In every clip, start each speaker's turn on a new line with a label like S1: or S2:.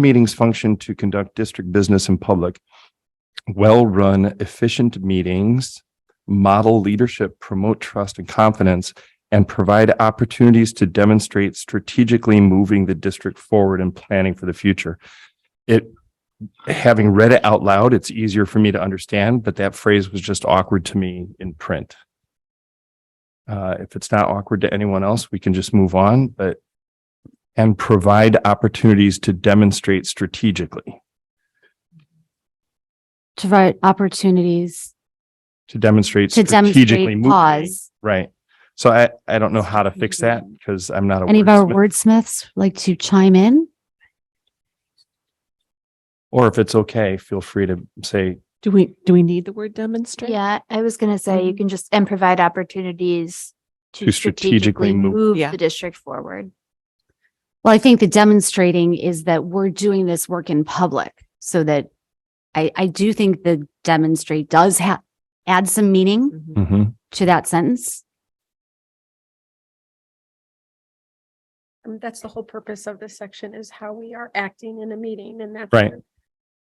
S1: meetings function to conduct district business in public. Well-run, efficient meetings, model leadership, promote trust and confidence, and provide opportunities to demonstrate strategically moving the district forward and planning for the future. It, having read it out loud, it's easier for me to understand, but that phrase was just awkward to me in print. Uh, if it's not awkward to anyone else, we can just move on, but and provide opportunities to demonstrate strategically,
S2: to provide opportunities
S1: to demonstrate
S2: to
S1: strategically.
S2: demonstrate
S1: moving.
S2: pause. Mm-hmm.
S1: Right. So I, I don't know how to fix that because I'm not a
S2: Any of our
S1: wordsmith.
S2: wordsmiths like to chime in?
S1: Or if it's okay, feel free to say,
S3: Do we, do we need the word demonstrate?
S4: Yeah, I was gonna say
S2: Mm-hmm.
S4: you can just, and provide opportunities
S1: To
S4: to
S1: strategically
S4: strategically
S1: move-
S4: move
S3: Yeah.
S4: the district forward.
S2: Well, I think the demonstrating is that we're doing this work in public so that I, I do think the demonstrate does have, add some meaning
S3: Mhm.
S1: Mhm.
S2: to that sentence.
S5: I mean, Um, that's the whole purpose of this section is how we are acting in a meeting and that's.
S1: Right. Mm-hmm.
S5: what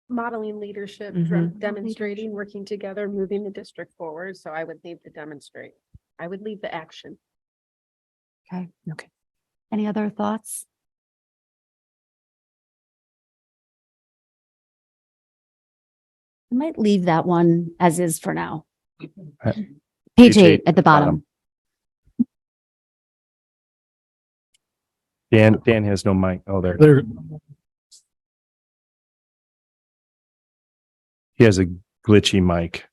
S5: Modeling leadership,
S3: Mhm.
S5: dra- demonstrating, working together, moving the district forward. So I would leave the demonstrate. I would leave the action.
S2: Any other thoughts? I might leave that one as is for now.
S1: Uh,
S2: Page eight at the bottom.
S1: Dan, Dan has no mic. Oh, there.
S6: There,
S1: He has a glitchy mic.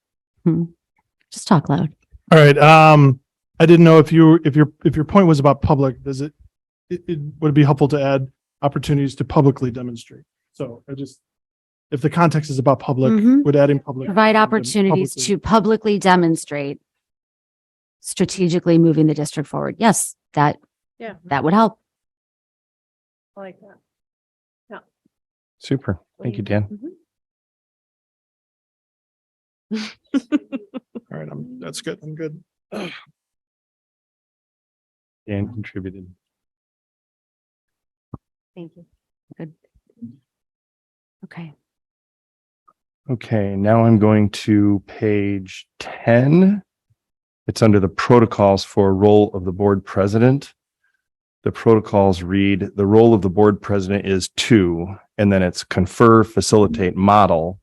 S2: Just talk loud.
S6: all right. Um, I didn't know if you, if your, if your point was about public, does it, it, it would it be helpful to add opportunities to publicly demonstrate. So I just, if the context is about public,
S2: Mhm.
S6: would adding public.
S2: Provide opportunities
S6: publicly-
S2: to publicly demonstrate strategically moving the district forward. Yes, that,
S5: Yeah.
S2: that would help.
S5: I like that.
S1: Super. Thank you, Dan.
S6: All right, I'm, that's good. I'm good.
S1: Dan contributed.
S2: Thank you. Good. Okay.
S1: Okay, now I'm going to page 10. It's under the protocols for role of the board president. The protocols read, the role of the board president is to, and then it's confer, facilitate, model.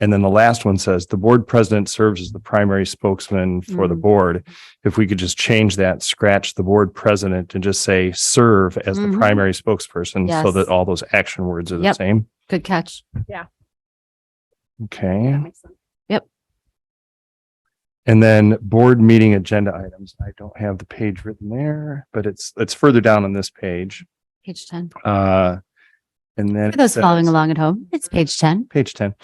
S1: And then the last one says, the board president serves as the primary spokesman for the
S2: Mm.
S1: board. If we could just change that, scratch the board president and just say serve as the
S2: Mhm.
S1: primary spokesperson so
S2: Yes.
S1: that all those action words are the
S2: Yep.
S1: same.
S2: Good catch.
S1: Okay.
S2: Yep.
S1: And then board meeting agenda items. I don't have the page written there, but it's, it's further down on this page.
S2: Page 10.
S1: Uh, and then.
S2: For those
S1: it
S2: following
S1: says-
S2: along at home, it's page 10.
S1: Page 10.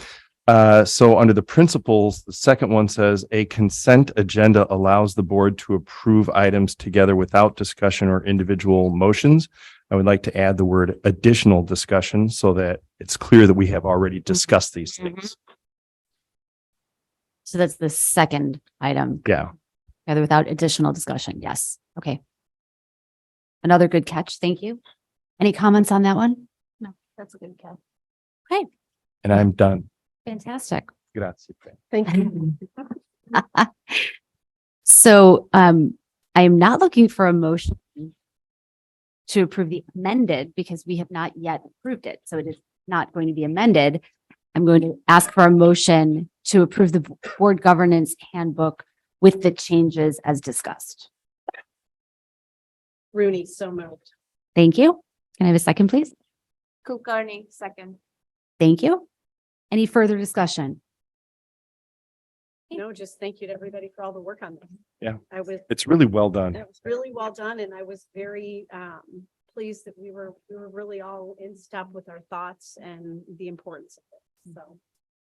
S1: Uh, so under the principles, the second one says a consent agenda allows the board to approve items together without discussion or individual motions. I would like to add the word additional discussion so that it's clear that we have already
S2: Mm-hmm.
S1: discussed these things.
S2: So that's the second item.
S1: Yeah.
S2: Together without additional discussion. Yes. Okay. Another good catch. Thank you. Any comments on that one?
S5: That's a good count.
S1: And I'm done.
S2: Fantastic.
S1: Grazie. Fran.
S5: Thank you.
S2: So um, I am not looking for a motion to approve the amended because we have not yet approved it. So it is not going to be amended. I'm going to ask for a motion to approve the board governance handbook with the changes as discussed.
S5: Rooney, so moved.
S2: Thank you. Can I have a second, please?
S4: Kulkarni, second.
S2: Thank you. Any further discussion?
S5: No, just thank you to everybody for all the work on this.
S1: Yeah.
S5: I was,
S1: It's really well done.
S5: that was really well done and I was very um pleased that we were, we were really all in step with our thoughts and the importance of it. So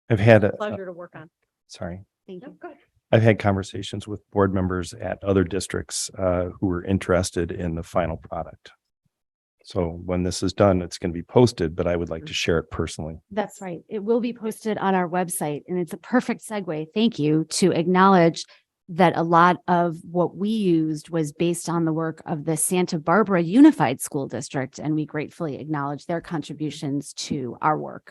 S1: I've had, a-
S5: pleasure to work on.
S1: sorry,
S2: Thank
S5: No,
S2: you.
S5: go ahead.
S1: I've had conversations with board members at other districts uh, who were interested in the final product. So when this is done, it's going to be posted, but I would like to share it personally.
S2: That's right. It will be posted on our website and it's a perfect segue. Thank you to acknowledge that a lot of what we used was based on the work of the Santa Barbara Unified School District, and we gratefully acknowledge their contributions to our work.